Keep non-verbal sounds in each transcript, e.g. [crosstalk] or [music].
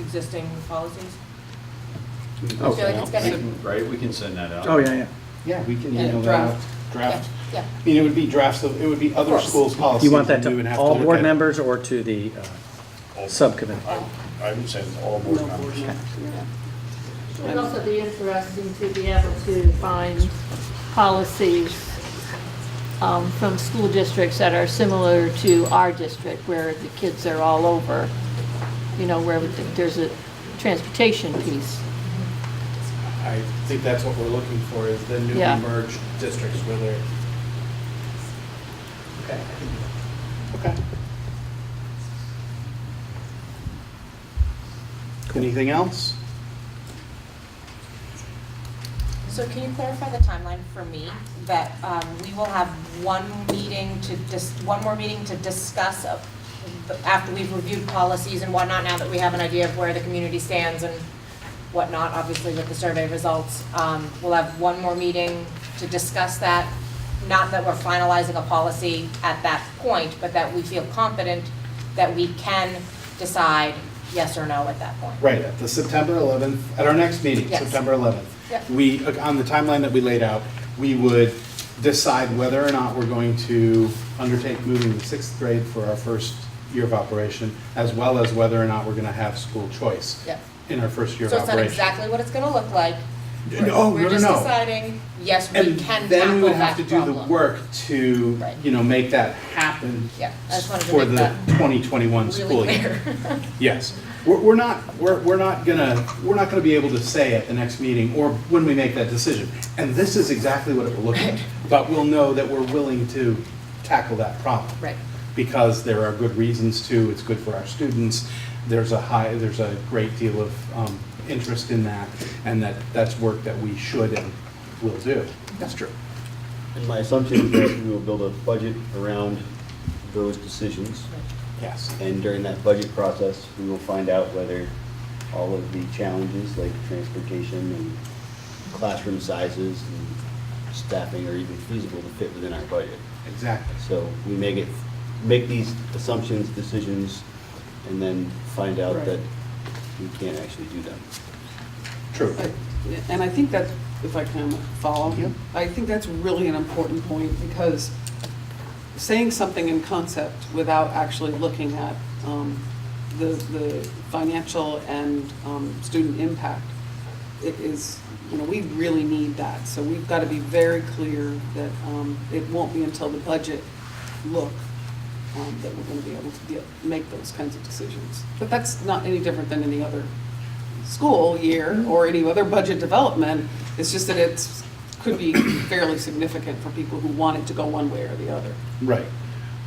existing policies? Oh. feel like it's gonna- Right, we can send that out. Oh, yeah, yeah. Yeah, we can Yeah, email that out. draft. Draft. Yeah, I mean, it would be drafts of, it would be other course. schools' policies. You want that and we would to have all look board at- members or to the uh, subcommittee? I I would say all board members. It'd also be interesting to be able to find policies um, from school districts that are similar to our district, where the kids are all over, you know, where there's a transportation piece. I think that's what we're looking for, is the newly Yeah. merged districts where they're. Okay. Okay. Anything else? So can you clarify the timeline for me, that um, we will have one meeting to, dis- one more meeting to discuss of- after we've reviewed policies and whatnot, now that we have an idea of where the community stands and whatnot, obviously with the survey results, Um, we'll have one more meeting to discuss that, not that we're finalizing a policy at that point, but that we feel confident that we can decide yes or no at that point. Right, at the September 11th, at our next meeting, Yes. September 11th. Yep. We, uh, on the timeline that we laid out, we would decide whether or not we're going to undertake moving to sixth grade for our first year of operation, as well as whether or not we're going to have school choice Yep. in our first year of So it's not operation. exactly what it's gonna look like. No, no, We're just no, no. deciding, yes, we And can then we tackle would that have to do the problem. work to, Right. you know, make that happen Yeah, I just wanted to for make the that 2021 school Really year. clear. Yes, we're, we're not, we're, we're not gonna, we're not gonna be able to say at the next meeting or when we make that decision. And this is exactly what it will look like, but we'll know that we're willing to tackle that problem. Right. Because there are good reasons to, it's good for our students, there's a high, there's a great deal of, um, interest in that, and that, that's work that we should and will do. That's true. And my assumption is that we will build a budget around those decisions. Yes. And during that budget process, we will find out whether all of the challenges like transportation and classroom sizes and staffing are even feasible to fit within our budget. Exactly. So we may get, make these assumptions, decisions, and then find out that we can't actually do them. True. But- And I think that, if I can follow, I think that's really an important point, because saying something in concept without actually looking at um, the, the financial and um, student impact i- is, you know, we really need that. So we've got to be very clear that um, it won't be until the budget look um, that we're going to be able to deal- make those kinds of decisions. But that's not any different than any other school year or any other budget development. It's just that it's, could be fairly significant for people who want it to go one way or the other. Right.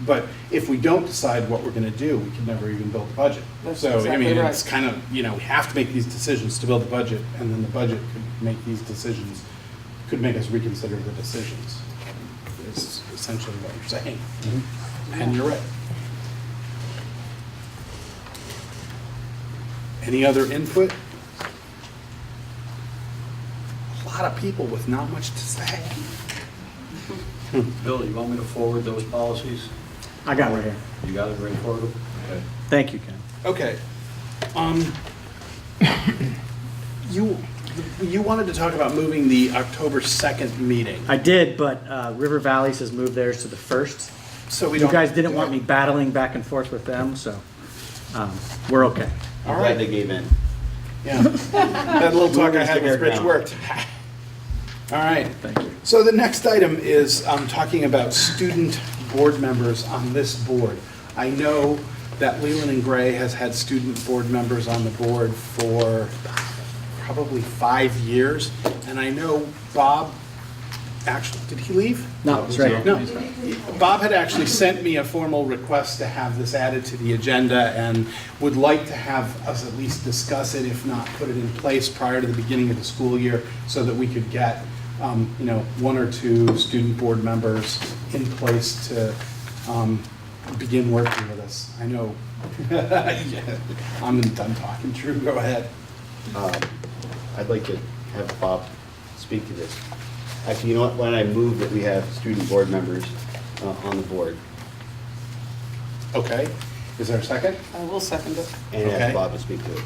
But if we don't decide what we're going to do, we can never even build the budget. That's So, I exactly mean, right. it's kind of, you know, we have to make these decisions to build the budget, and then the budget could make these decisions, could make us reconsider the decisions, is essentially what you're saying. Mm-hmm. And you're right. Any other input? A lot of people with not much to say. Bill, you want me to forward those policies? I got it right here. You got it, bring forward them? Okay. Thank you, Ken. Okay. Um, [coughs] you, you wanted to talk about moving the October 2nd meeting, I did, but uh, River Valleys has moved theirs to the first. so we You don't. guys didn't want me battling back and forth with them, so um, we're okay. All I'm glad right. they gave in. Yeah. [laughs] That little talk I had with Rich worked. [laughs] All right. Thank you. So the next item is um, talking about student board members on this board. I know that Leland and Gray has had student board members on the board for probably five years, and I know Bob, actually, did he leave? No, it's right here. No, Bob had actually sent me a formal request to have this added to the agenda and would like to have us at least discuss it, if not put it in place prior to the beginning of the school year so that we could get, um, you know, one or two student board members in place to um, begin working with us. I know, [laughs] Yeah, I'm done talking, Drew, go ahead. Um, I'd like to have Bob speak to this. Actually, you know what, why don't I move that we have student board members uh, on the board Okay, is there a second? I will second it. and Okay. ask Bob to speak to it?